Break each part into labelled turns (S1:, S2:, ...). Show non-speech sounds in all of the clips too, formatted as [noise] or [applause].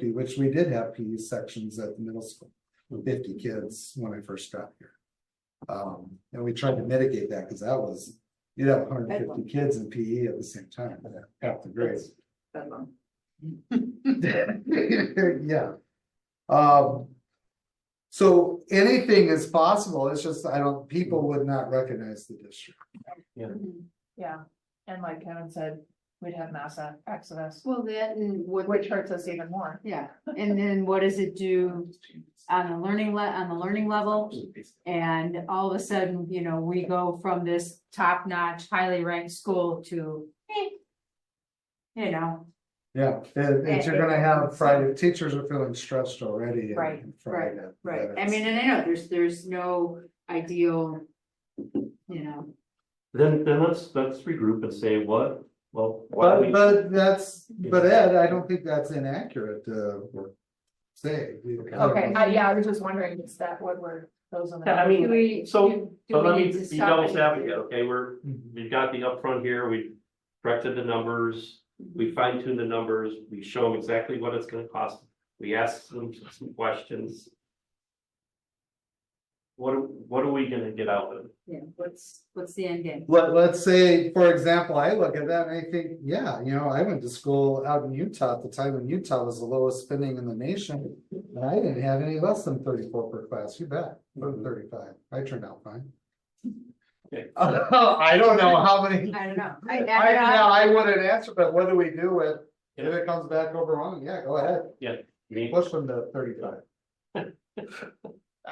S1: P, which we did have PE sections at the middle school, with fifty kids when I first got here. Um, and we tried to mitigate that, because that was, you'd have hundred and fifty kids in PE at the same time, half the grades.
S2: Bedlam.
S1: Yeah. Um. So anything is possible, it's just, I don't, people would not recognize the district.
S2: Mm-hmm. Yeah, and like Kevin said, we'd have mass ac- exodus,
S3: Well, that and what,
S2: which hurts us even more.
S3: yeah, and then what does it do on the learning le- on the learning level? And all of a sudden, you know, we go from this top-notch, highly ranked school to, eh, you know,
S1: Yeah, and, and you're gonna have Friday, teachers are feeling stressed already.
S2: Right,
S1: and
S3: right,
S1: Friday,
S3: right, I
S1: that's-
S3: mean, and I know there's, there's no ideal, you know,
S4: Then, then let's, let's regroup and say what, well. why do
S1: But,
S4: we-
S1: but that's, but Ed, I don't think that's inaccurate uh, to say.
S2: Okay, I, yeah, I was just wondering, is that what we're, those on the.
S4: I mean,
S3: do we?
S4: So,
S3: do- do
S4: but let
S3: we
S4: me
S3: need to
S4: be
S3: stop
S4: devil's
S3: and-
S4: advocate, okay, we're, we've got the upfront here, we corrected the numbers.
S3: Mm-hmm.
S4: We fine tune the numbers, we show them exactly what it's gonna cost, we ask them some questions. What, are- what are we gonna get out of it?
S3: Yeah, what's, what's the end game?
S1: Let, let's say, for example, I look at that and I think, yeah, you know, I went to school out in Utah at the time when Utah was the lowest spending in the nation. And I didn't have any less than thirty-four per class, you bet, from thirty-five, I turned out fine. [laughs]
S4: Okay.
S1: I don't know how many,
S3: I don't know.
S1: I,
S3: I- I don't
S1: yeah,
S3: know.
S1: I wouldn't answer, but whether we do it, if it comes back over wrong, yeah, go ahead,
S4: I mean,
S1: push them to thirty-five.
S5: I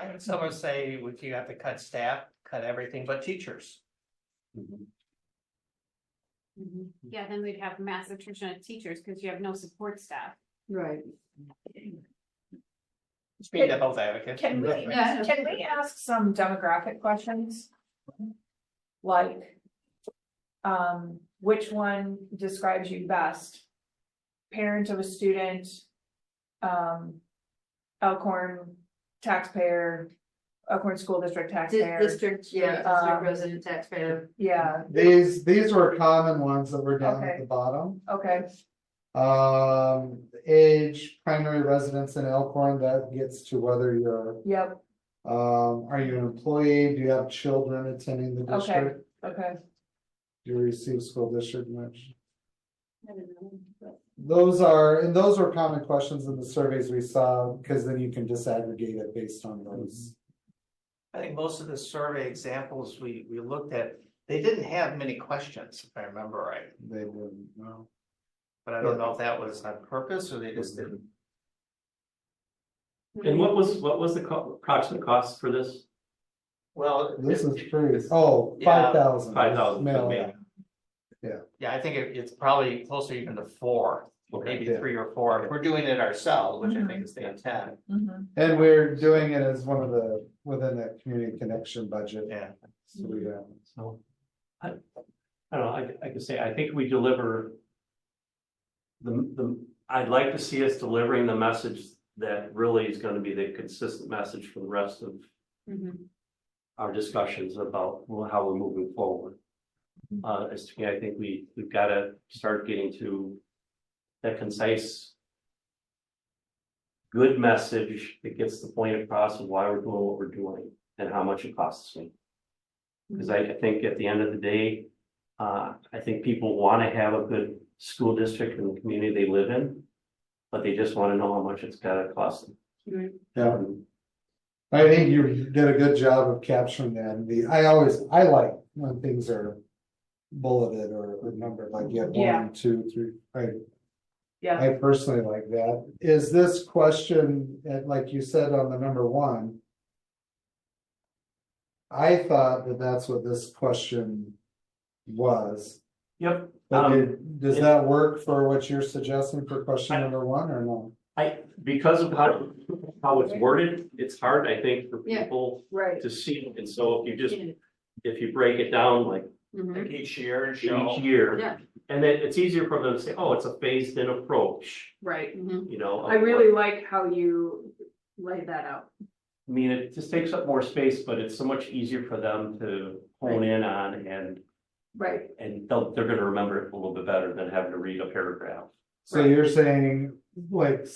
S5: heard someone say, would you have to cut staff, cut everything but teachers?
S3: Mhm.
S6: Mm-hmm. Yeah, then we'd have mass attrition of teachers because you have no support staff.
S3: Right.
S5: Just be devil's advocate.
S2: Can we, uh,
S3: Yeah.
S2: can we ask some demographic questions? Like. Um, which one describes you best? Parent of a student. Um. Elkhorn taxpayer, Elkhorn School District
S3: Di-
S2: taxpayer,
S3: District, yeah,
S2: Um,
S3: district resident taxpayer.
S2: yeah,
S1: These, these were common ones that were down at
S2: Okay.
S1: the bottom.
S2: okay,
S1: Um, age, primary residence in Elkhorn, that gets to whether you're,
S2: yep,
S1: um, are you an employee, do you have children attending the
S2: Okay.
S1: district?
S2: okay.
S1: Do you receive school district much? Those are, and those were common questions in the surveys we saw, because then you can disaggregate it based on those.
S5: I think most of the survey examples we, we looked at, they didn't have many questions, if I remember right.
S4: Mm-hmm.
S1: They wouldn't know.
S5: But I don't know if that was on purpose or they just didn't.
S4: And what was, what was the co- approximate cost for this?
S5: Well.
S1: This is
S5: it-
S1: true. Oh,
S5: Yeah,
S1: five thousand.
S4: Five thousand,
S1: Mail.
S5: Yeah, I think it, it's probably closer even to four,
S4: okay,
S5: maybe
S1: Yeah.
S5: three or four. If We're doing it ourselves, which I
S2: Mm-hmm.
S5: think is the intent.
S2: mhm.
S1: And we're doing it as one of the, within that community connection budget.
S5: Yeah.
S1: So we uh, don't.
S4: so. I, I don't know, I, I could say, I think we deliver. The, the, I'd like to see us delivering the message that really is gonna be the consistent message for the rest of
S3: Mhm.
S4: our discussions about well, how we're moving forward. Uh, as to me, I think we, we've gotta start getting to that concise. Good message that gets the point across of why we're doing what we're doing and how much it costs me. Cause I, I think at the end of the day, uh, I think people wanna have a good school district in the community they live in. But they just wanna know how much it's gotta cost them.
S1: Yeah. I think you did a good job of capturing that. And The, I always, I like when things are bulleted or numbered, like you have
S2: Yeah.
S1: one, two, three, I,
S2: Yeah,
S1: I personally like that. Is this question, and like you said on the number one? I thought that that's what this question was.
S4: Yep,
S1: But
S4: Um,
S1: did- does
S4: it-
S1: that work for what you're suggesting for question
S4: I-
S1: number one or no?
S4: I, because of how, how it's worded, it's hard, I think, for
S3: Yeah.
S4: people
S2: right,
S4: to see. And so if you just, if you break it down like
S3: Mhm.
S5: Like each year and show.
S4: each year.
S3: Yeah.
S4: And then it's easier for them to say, oh, it's a phased in approach,
S7: Right,
S3: Mhm.
S4: you know.
S7: I really like how you laid that out.
S4: I mean, it just takes up more space, but it's so much easier for them to hone in on and,
S7: Right,
S4: and they'll, they're gonna remember it a little bit better than having to read a paragraph.
S1: So you're saying, like,